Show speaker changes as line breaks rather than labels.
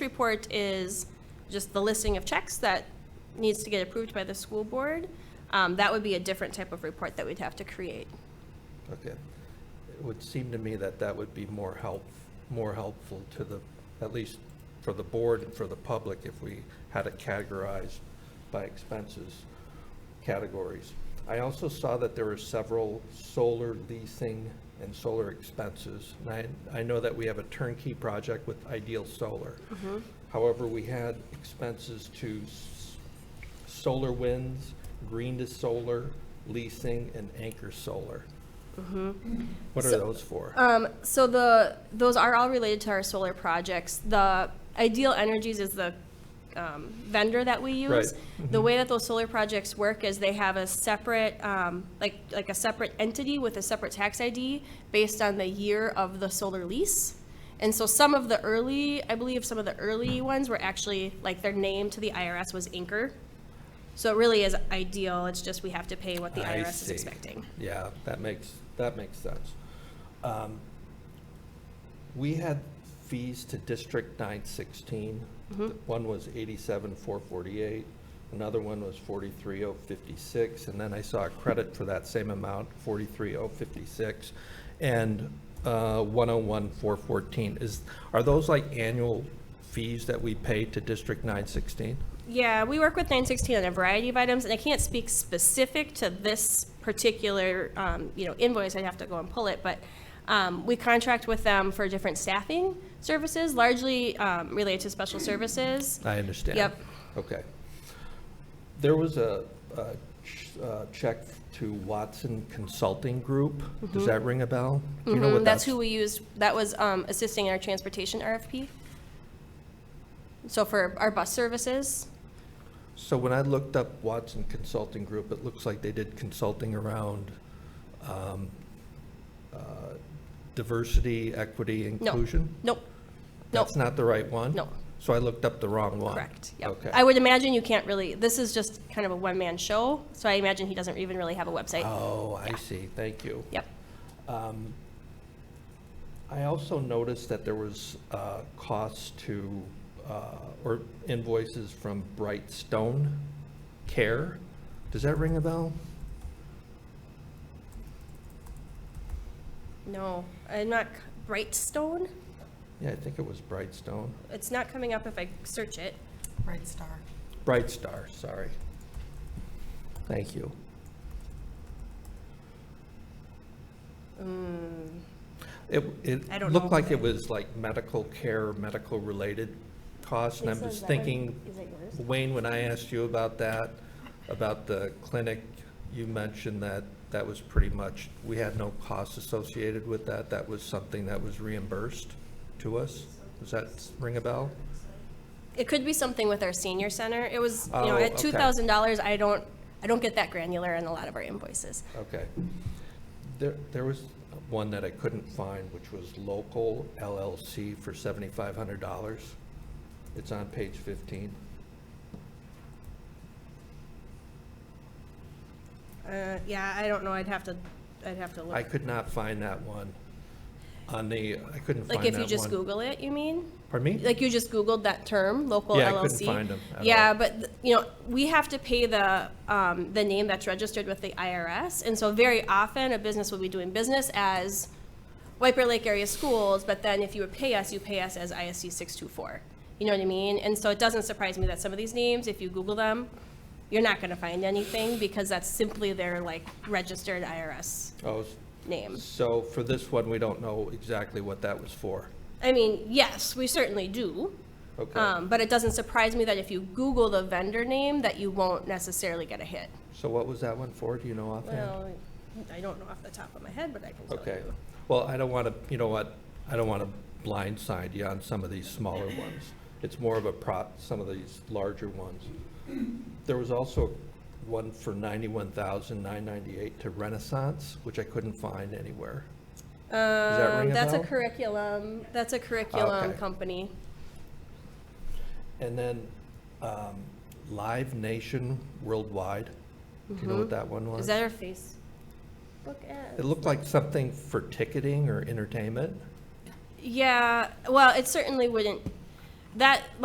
report is just the listing of checks that needs to get approved by the school board. Um, That would be a different type of report that we'd have to create.
Okay. It would seem to me that that would be more help, more helpful to the, at least for the board and for the public, if we had it categorized by expenses categories. I also saw that there were several solar leasing and solar expenses. And I, I know that we have a turnkey project with Ideal Solar. However, we had expenses to s- solar winds, green to solar, leasing, and anchor solar. What are
So-
those for?
Um, so the, those are all related to our solar projects. The Ideal Energies is the um, vendor that we use.
Right. Mm-hmm.
The way that those solar projects work is they have a separate, um, like, like a separate entity with a separate tax ID based on the year of the solar lease. And so some of the early, I believe some of the early ones were actually, like, their name to the IRS was Anchor. So it really is ideal, it's just we have to pay what the
I
IRS is
see.
expecting.
Yeah, that makes, that makes sense. Um, We had fees to District 916.
Mm-hmm.
One was 87,448, another one was 43,056, and then I saw a credit for that same amount, 43,056, and uh, 101,414. Is, are those like annual fees that we pay to District 916?
Yeah, we work with 916 on a variety of items, and I can't speak specific to this particular, um, you know, invoice, I'd have to go and pull it, but um, we contract with them for different staffing services, largely um, related to special services.
I understand.
Yep.
Okay. There was a, a ch- uh, check to Watson Consulting Group. Does that ring a bell? Do you know what
Mhm, Mm-hmm. That's who we used, that was um, assisting in our transportation RFP. So for our bus services,
So when I looked up Watson Consulting Group, it looks like they did consulting around, um, uh, diversity, equity, inclusion?
nope, nope,
That's not the right one?
No.
So I looked up the wrong one?
correct, yep.
Okay.
I would imagine you can't really, this is just kind of a one-man show, so I imagine he doesn't even really have a website.
Oh, I see. Thank you.
Yep.
Um, I also noticed that there was uh, costs to, uh, or invoices from Brightstone Care. Does that ring a bell?
No, I'm not, c- Brightstone?
Yeah, I think it was Brightstone.
It's not coming up if I search it.
Bright Star.
Brightstar, sorry. Thank you.
Mm.
It,
I
it
don't know.
looked like it was like medical care, medical-related costs, and I'm just thinking, Wayne, when I asked you about that, about the clinic, you mentioned that that was pretty much, we had no costs associated with that. That was something that was reimbursed to us. Does that ring a bell?
It could be something with our senior center. It was, you know,
Oh,
at
okay.
two thousand dollars, I don't, I don't get that granular in a lot of our invoices.
Okay. There, there was one that I couldn't find, which was local LLC for seventy-five hundred dollars. It's on page fifteen.
Uh, yeah, I don't know. I'd have to, I'd have to
I
look.
could not find that one on the, I couldn't find that one.
Like if you just Google it, you mean?
Pardon me?
Like you just Googled that term, local LLC?
Yeah, I couldn't find 'em at
Yeah,
all.
but, th- you know, we have to pay the, um, the name that's registered with the IRS. And so very often, a business will be doing business as White Bear Lake Area Schools, but then if you would pay us, you pay us as ISD 624. You know what I mean? And so it doesn't surprise me that some of these names, if you Google them, you're not gonna find anything because that's simply their, like, registered IRS
Oh,
name.
so for this one, we don't know exactly what that was for.
I mean, yes, we certainly do.
Okay.
Um, but it doesn't surprise me that if you Google the vendor name, that you won't necessarily get a hit.
So what was that one for? Do you know offhand?
Well, I don't know off the top of my head, but I can tell you.
Okay. Well, I don't want to, you know what? I don't want to blindside you on some of these smaller ones. It's more of a prop, some of these larger ones. There was also one for ninety-one thousand nine ninety-eight to Renaissance, which I couldn't find anywhere. that ring
Um,
a
that's a
bell?
curriculum, that's a curriculum
Okay.
company.
And then um, Live Nation Worldwide. Do you know what that one was?
Mm-hmm. Is that our face? Look
It
at.
looked like something for ticketing or entertainment.
Yeah, well, it certainly wouldn't, that,